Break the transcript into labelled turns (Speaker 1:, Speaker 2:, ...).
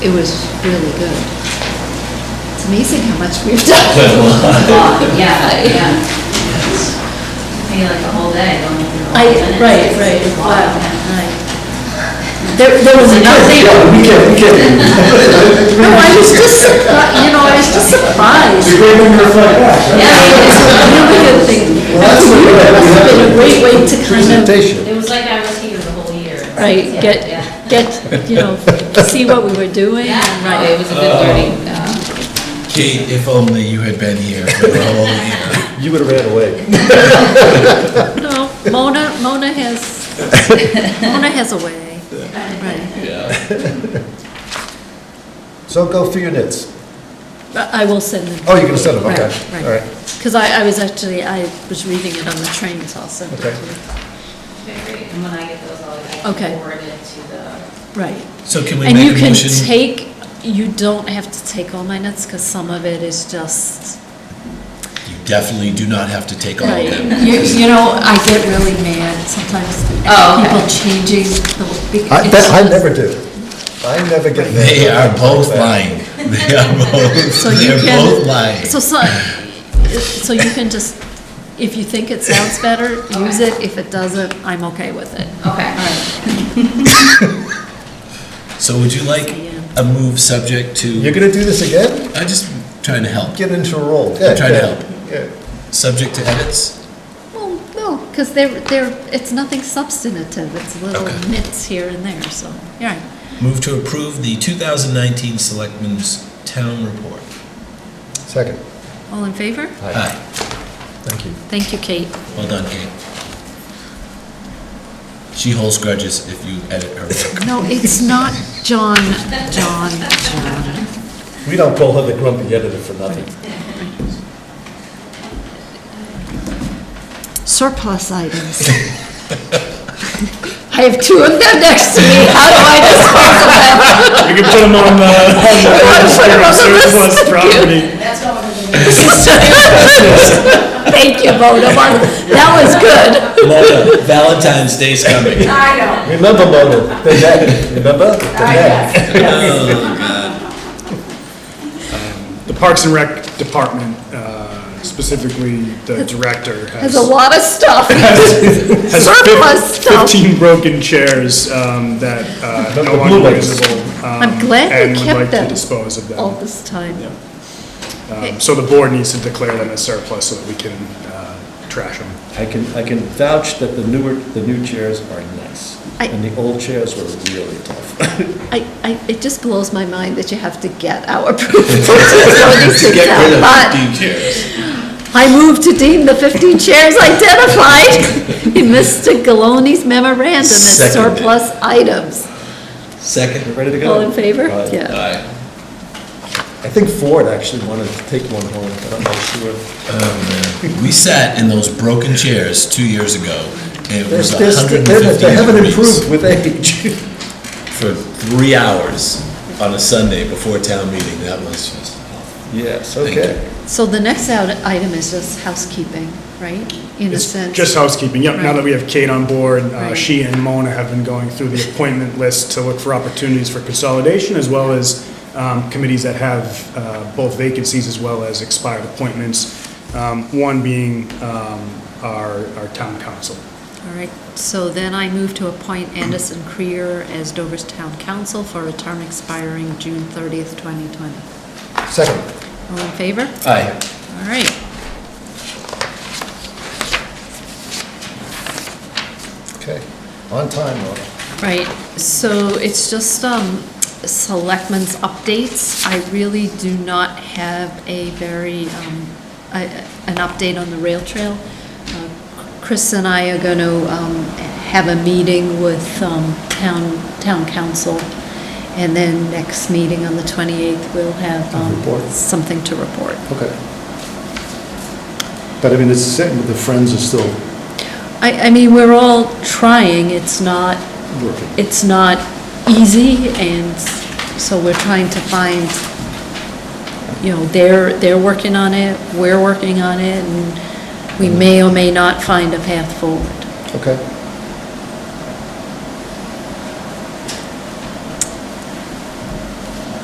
Speaker 1: It was really good. It's amazing how much we've done.
Speaker 2: Yeah, yeah. Maybe like a whole day, don't even know.
Speaker 1: I,
Speaker 2: minutes.
Speaker 1: right, right,
Speaker 2: It's a lot,
Speaker 1: wow,
Speaker 2: yeah.
Speaker 1: right. There, there was
Speaker 3: Yeah,
Speaker 1: another,
Speaker 3: we can, we can.
Speaker 1: no, I was just surprised, you know, I was just
Speaker 3: It's a
Speaker 1: surprised.
Speaker 3: great way to reflect back, right?
Speaker 1: It's a
Speaker 2: Yeah, it is.
Speaker 1: really good thing.
Speaker 3: Well, that's what we
Speaker 1: It
Speaker 3: have.
Speaker 1: must have been a great way to kind of,
Speaker 4: presentation.
Speaker 2: It was like I was here the whole year.
Speaker 1: right,
Speaker 2: Yeah,
Speaker 1: get,
Speaker 2: Yeah,
Speaker 1: get, you know, see what we were doing,
Speaker 2: Yeah,
Speaker 1: and,
Speaker 2: no, it
Speaker 1: right.
Speaker 2: was a good learning, um,
Speaker 5: Kate, if only you had been here for the whole year.
Speaker 4: You would have ran away.
Speaker 1: No, Mona, Mona has, Mona has a way, right.
Speaker 4: So go through your knits.
Speaker 1: I I will send them.
Speaker 4: Oh, you're gonna send them, okay.
Speaker 1: Right,
Speaker 4: All
Speaker 1: right.
Speaker 4: right.
Speaker 1: Because I, I was actually, I was reading it on the train, so I'll send it to
Speaker 4: Okay.
Speaker 1: you.
Speaker 2: very- and when I get those, I'll I
Speaker 1: Okay.
Speaker 2: can forward it to the,
Speaker 1: Right.
Speaker 5: So can we
Speaker 1: And you
Speaker 5: make a
Speaker 1: can
Speaker 5: motion?
Speaker 1: take, you don't have to take all my notes, because some of it is just,
Speaker 5: You definitely do not have to take all of
Speaker 1: right.
Speaker 5: them.
Speaker 1: You, you know, I get really mad sometimes
Speaker 2: Oh,
Speaker 1: at
Speaker 2: okay.
Speaker 1: people changing the. because
Speaker 4: I,
Speaker 1: it's
Speaker 4: that, I
Speaker 1: just-
Speaker 4: never do. I never get. mad.
Speaker 5: They are both lying. They are both,
Speaker 1: So you
Speaker 5: they're
Speaker 1: can-
Speaker 5: both lying.
Speaker 1: So, so, so you can just, if you think it sounds better, use
Speaker 2: Okay.
Speaker 1: it. If it doesn't, I'm okay with it.
Speaker 2: okay, all right.
Speaker 5: So would you like a move subject
Speaker 4: You're
Speaker 5: to,
Speaker 4: gonna do this again?
Speaker 5: I'm just trying to help,
Speaker 4: Get into a roll.
Speaker 5: I'm trying to help.
Speaker 4: Yeah.
Speaker 5: Subject to edits?
Speaker 1: Well, no, because they're, they're, it's nothing substantive, it's little
Speaker 5: Okay.
Speaker 1: nits here and there, so, yeah. right.
Speaker 5: Move to approve the 2019 Selectmen's Town Report.
Speaker 4: Second.
Speaker 1: All in favor?
Speaker 5: Hi,
Speaker 4: Thank you.
Speaker 1: Thank you, Kate.
Speaker 5: well done, Kate. She holds grudges if you edit her work.
Speaker 1: No, it's not John, John, John.
Speaker 4: We don't call her the grumpy editor for nothing.
Speaker 1: Surplus items. I have two of them next to me, how do I dispose of them?
Speaker 3: You can put them on the, on the
Speaker 1: You wanna put 'em on the list?
Speaker 3: surplus property.
Speaker 1: Thank you, Mona, that was good.
Speaker 5: Mona, Valentine's Day's coming.
Speaker 4: Remember, Mona, the head, remember? The
Speaker 1: Ah,
Speaker 4: head.
Speaker 3: The Parks and Rec Department, uh, specifically the director, has
Speaker 1: There's a lot of stuff,
Speaker 3: has
Speaker 1: surplus
Speaker 3: fif-
Speaker 1: stuff.
Speaker 3: fifteen broken chairs um, that uh,
Speaker 4: Not
Speaker 3: no
Speaker 4: the
Speaker 3: longer
Speaker 4: blue ones.
Speaker 3: usable. um,
Speaker 1: I'm glad we
Speaker 3: and would
Speaker 1: kept
Speaker 3: like to
Speaker 1: them.
Speaker 3: dispose of them.
Speaker 1: all this time.
Speaker 3: Um, So the board needs to declare them as surplus so that we can uh, trash them.
Speaker 6: I can, I can vouch that the newer, the new chairs are nice,
Speaker 1: I-
Speaker 6: and the old chairs were really tough.
Speaker 1: I, I, it just blows my mind that you have to get our approval to throw these things out, but I move to deem the 15 chairs identified in Mr. Gallone's memorandum as
Speaker 5: Seconded.
Speaker 1: surplus items.
Speaker 5: Second.
Speaker 6: Ready to go?
Speaker 1: All in favor?
Speaker 6: Aye.
Speaker 1: Yeah.
Speaker 6: I think Ford actually wanted to take one home, but I'm not sure.
Speaker 5: We sat in those broken chairs two years ago, and it
Speaker 6: They're-
Speaker 5: was
Speaker 6: they're- they're-
Speaker 5: 150
Speaker 6: They haven't
Speaker 5: degrees
Speaker 6: improved with age.
Speaker 5: for three hours on a Sunday before town meeting. That was just,
Speaker 6: Yes,
Speaker 5: Thank
Speaker 6: okay.
Speaker 1: So the next out- item is just housekeeping, right? In a
Speaker 3: It's
Speaker 1: sense.
Speaker 3: Just housekeeping, yep, now that we have Kate on board, uh,
Speaker 1: Right.
Speaker 3: she and Mona have been going through the appointment list to look for opportunities for consolidation, as well as um, committees that have uh, both vacancies as well as expired appointments, um, one being um, our our town council.
Speaker 1: All right, so then I move to appoint Anderson Creer as Dover's Town Council for a term expiring June 30th, 2020.
Speaker 4: Second.
Speaker 1: All in favor?
Speaker 5: aye.
Speaker 1: All right.
Speaker 4: Okay. On time, Mona.
Speaker 1: Right, so it's just um, selectmen's updates. I really do not have a very, um, a- an update on the rail trail. Uh, Chris and I are going to have a meeting with um, town, town council, and then next meeting on the 28th, we'll have um,
Speaker 4: Report.
Speaker 1: something to report.
Speaker 4: Okay. But I mean, it's, the friends are still
Speaker 1: I, I mean, we're all trying, it's not,
Speaker 4: working.
Speaker 1: it's not easy, and so we're trying to find, you know, they're, they're working on it, we're working on it, and we may or may not find a path forward.
Speaker 4: Okay.